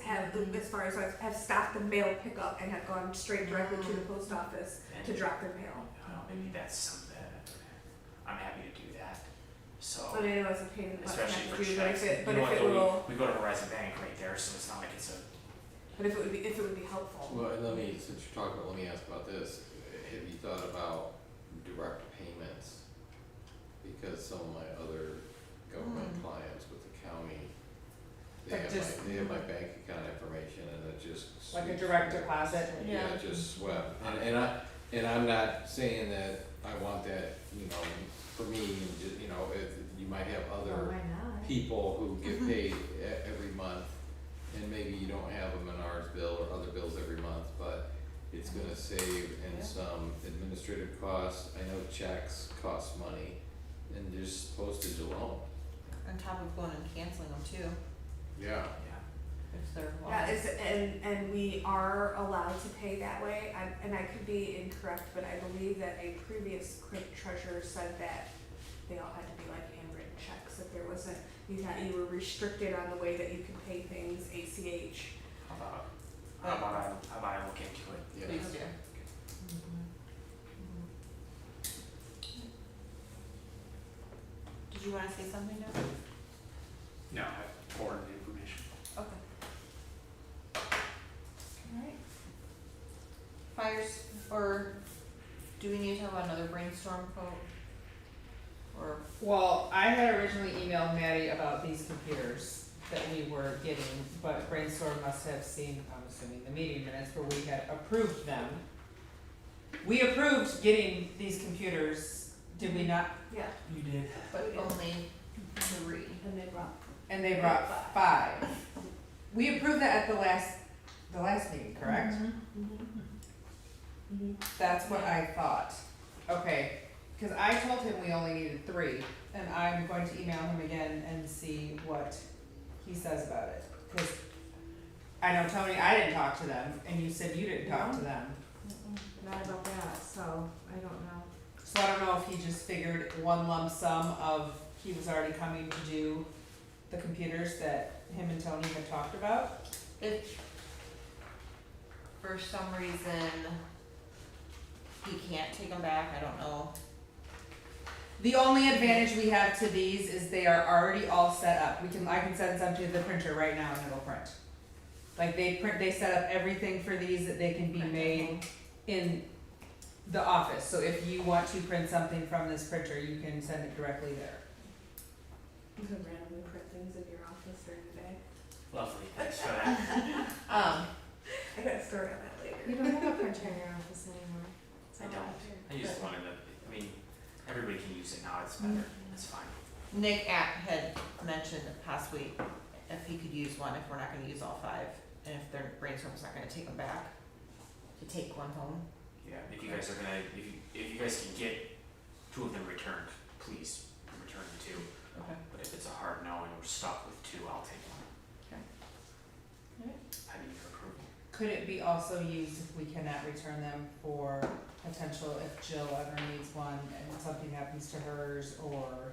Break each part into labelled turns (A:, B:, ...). A: have the, as far as I've, have stopped the mail pickup and have gone straight directly to the
B: Mm.
A: post office to drop their mail.
B: Oh, maybe that's something, I'm happy to do that, so.
A: But I know it's a pain in the butt to
B: Oh. Especially
A: have
B: for
A: to do, but
B: checks,
A: if
B: you
A: it, but
B: know
A: if
B: what,
A: it
B: though,
A: will,
B: we, we go to Horizon Bank right there, so it's not like it's a,
A: but if it would be, if it would be helpful.
C: Well, and let me, since you're talking, let me ask about this, have you thought about direct payments? Because some of my other government
D: Mm.
C: clients with the county, they
D: Like
C: have
D: just-
C: my, they have my bank account information and it just.
D: Like a
C: sweeps
D: direct
C: me.
D: deposit?
C: Yeah,
D: Yeah.
C: it just swept, and, and I, and I'm not saying that I want that, you know, for me, and ju- you know, if, you might have other
A: not?
C: people who get paid e- every month, and maybe you don't have a Menards bill or other bills every month, but it's gonna save
D: Yeah.
C: in some administrative costs, I know checks cost money, and just postage alone.
D: On top of going and canceling them too,
C: Yeah.
B: yeah,
D: if they're long.
A: Yeah, it's, and, and we are allowed to pay that way, I, and I could be incorrect, but I believe that a previous clerk treasurer said that they all had to be like handwritten checks, that there wasn't, you had, you were restricted on the way that you could pay things ACH.
B: how about, how about I, how about I look into it?
C: Yeah.
D: Please do. Did you wanna say something now?
B: No, I forwarded the information.
D: Okay. Alright. Fires, or do we need to have another brainstorm quote? Or,
E: Well, I had originally emailed Maddie about these computers that we were getting, but Brainstorm must have seen, I'm assuming, the meeting minutes where we had approved them. We approved getting these computers, did we not?
A: Yeah,
B: You did.
D: but only three.
A: and they brought,
E: And they brought five. We approved that at the last, the last meeting, correct?
F: Mm-hmm.
E: That's what I thought. Okay, cause I told him we only needed three, and I'm going to email him again and see what he says about it. Cause I know Tony, I didn't talk to them, and you said you didn't talk to them.
A: not about that, so I don't know.
E: So I don't know if he just figured one lump sum of, he was already coming to do the computers that him and Tony had talked about.
D: If for some reason he can't take them back, I don't know.
E: The only advantage we have to these is they are already all set up. We can, I can send some to the printer right now and it'll print. Like they print, they set up everything for these that they can be made in the office. So if you want to print something from this printer, you can send it directly there.
A: You can randomly print things in your office during the day.
B: Lovely, thanks for that.
D: Um,
A: I got a story on that later.
F: You don't have a printer in your office anymore. It's
B: I
F: all
B: don't.
F: out there.
B: I just wanted to, I mean, everybody can use it now, it's better, it's fine.
D: Nick at, had mentioned possibly if he could use one, if we're not gonna use all five, and if their brainstorm's not gonna take them back, to take one home.
B: Yeah, if you guys are gonna, if you, if you guys can get two of them returned, please return the two.
D: Okay.
B: But if it's a hard no and we're stuck with two, I'll take one.
D: Okay. Alright.
B: I need your approval.
E: Could it be also used if we cannot return them for potential if Jill ever needs one and something happens to hers or?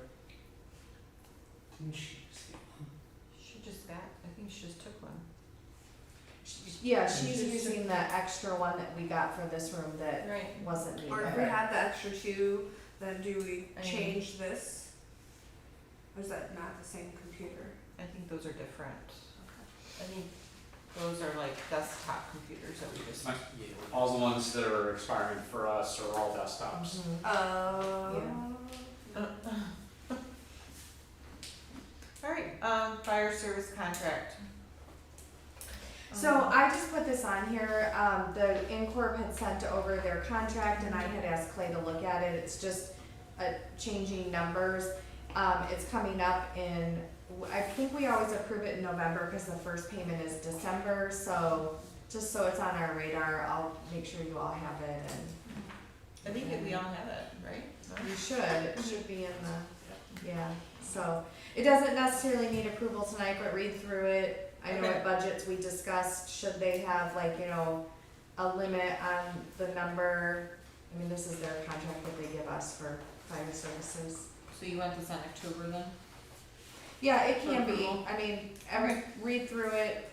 B: Didn't she just get one?
D: She just got, I think she just took one.
F: She- Yeah, she's using the extra one that we got for this room that
D: Right.
F: wasn't needed.
A: Or if we had the extra two, then do we
D: I mean-
A: change this? Or is that not the same computer?
D: I think those are different. I think those are like desktop computers that we just.
G: My- All the ones that are expiring for us are all desktops.
D: Mhm.
A: Oh.
D: Alright, um, fire service contract.
F: So
D: Um,
F: I just put this on here, um, the Incorp had sent over their contract and I had asked Clay to look at it, it's just uh, changing numbers. Um, it's coming up in, I think we always approve it in November because the first payment is December, so just so it's on our radar, I'll make sure you all have it and
D: I think that we all have it, right?
F: you should, it should be in the, yeah, so. It doesn't necessarily need approval tonight, but read through it. I know
D: Okay.
F: at budgets we discussed, should they have like, you know, a limit on the number? I mean, this is their contract that they give us for fire services.
D: So you want this on October then?
F: Yeah, it can
D: For
F: be,
D: approval?
F: I mean, every, read through it,